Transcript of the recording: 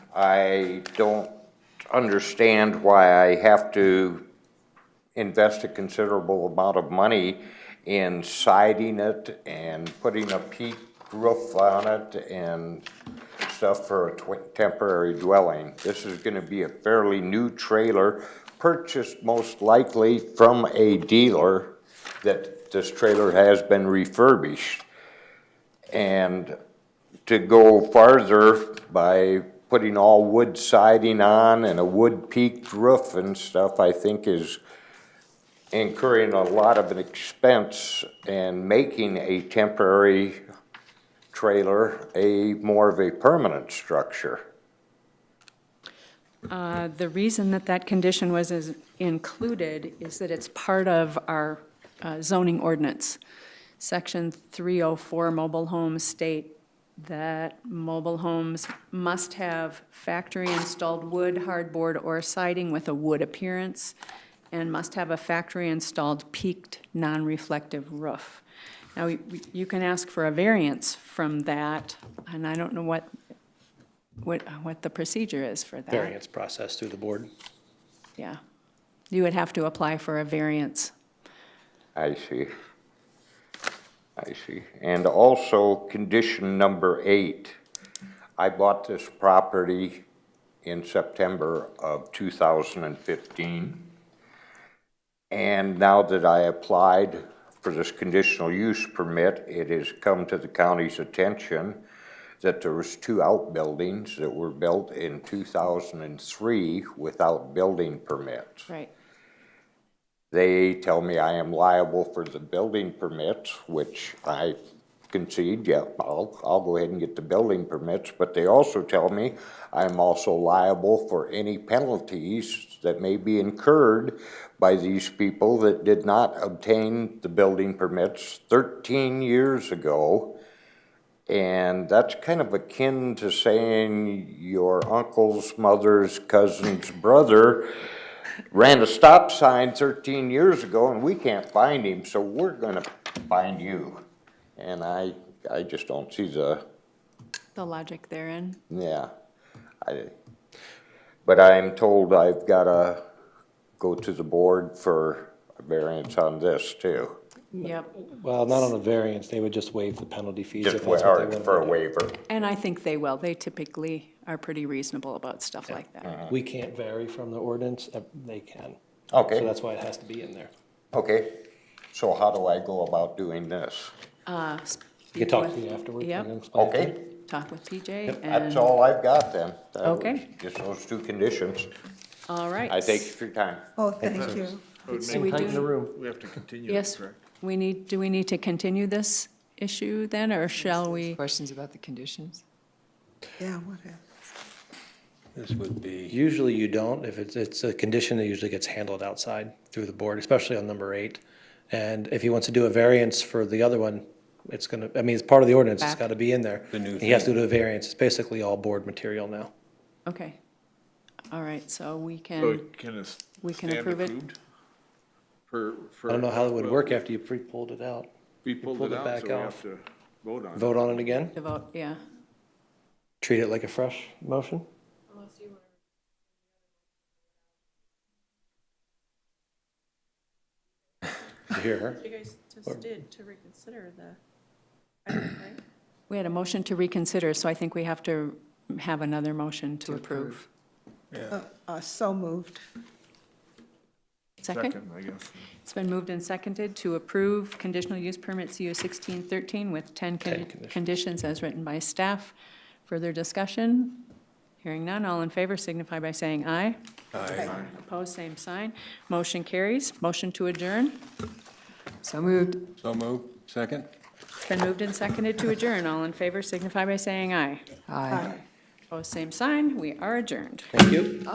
I don't understand why I have to invest a considerable amount of money in siding it and putting a peak roof on it and stuff for a tw- temporary dwelling. This is gonna be a fairly new trailer, purchased most likely from a dealer that this trailer has been refurbished. And to go farther by putting all wood siding on and a wood peaked roof and stuff, I think is incurring a lot of an expense and making a temporary trailer a more of a permanent structure. Uh, The reason that that condition was is included is that it's part of our uh, zoning ordinance. Section 304 mobile homes state that mobile homes must have factory-installed wood, hardboard, or siding with a wood appearance, and must have a factory-installed peaked, non-reflective roof. Now, we- we- you can ask for a variance from that, and I don't know what, what, what the procedure is for that. variance process through the board. Yeah. You would have to apply for a variance. I see. I see. And also, condition number eight, I bought this property in September of 2015. And now that I applied for this conditional use permit, it has come to the county's attention that there was two outbuildings that were built in 2003 without building permits. Right. They tell me I am liable for the building permits, which I concede, yeah, I'll, I'll go ahead and get the building permits, but they also tell me I'm also liable for any penalties that may be incurred by these people that did not obtain the building permits thirteen years ago. And that's kind of akin to saying your uncle's mother's cousin's brother ran a stop sign 13 years ago and we can't find him, so we're gonna find you. And I, I just don't see the, The logic therein. yeah. I, but I'm told I've gotta go to the board for a variance on this too. Yep. Well, not on a variance, they would just waive the penalty fees if Just that's what they wa- wanted for a to waiver. And I think they will. They typically are pretty reasonable about stuff like that. do. We can't vary from the ordinance, uh, they can. So Okay, that's why it has to be in there. okay. So how do I go about doing this? Uh, You can talk to me speak with- afterwards. I can Yep, explain it to Okay, you. talk with PJ that's and, all I've got then. That was Okay. Just those two conditions. all right. I thank you for your time. Oh, thank you. It would So make- we Tighten the do, room. We have to continue. this, yes, right? we need, do we need to continue this issue then, or shall we? Questions about the conditions? Yeah, whatever. This would be, Usually you don't, if it's, it's a condition that usually gets handled outside through the board, especially on number eight. And if he wants to do a variance for the other one, it's gonna, I mean, it's part of the ordinance, it's Back. gotta be in there. The new He has to thing. do a variance, it's basically all board material now. Okay. All right, so we So can, can it we can stand approve it? approved For, for. I don't know how it would well, work after you pre-pulled it out. We pulled pulled it it out, back so we off. have to vote on it. Vote on it again? devote, yeah. treat it like a fresh motion? Did you hear her? You guys just did to reconsider the, item, right? We had a motion to reconsider, so I think we have to have another motion to approve. Uh, So moved. Second? Second, I guess. It's been moved and seconded to approve conditional use permit CU 1613 with 10 con- conditions as written by staff. Further discussion? Hearing none, all in favor signify by saying aye. Aye. Opposed, same sign. Motion carries. Motion to adjourn. So moved. so moved, second? It's been moved and seconded to adjourn. All in favor signify by saying aye. Aye. Opposed, same sign. We are adjourned. Thank you.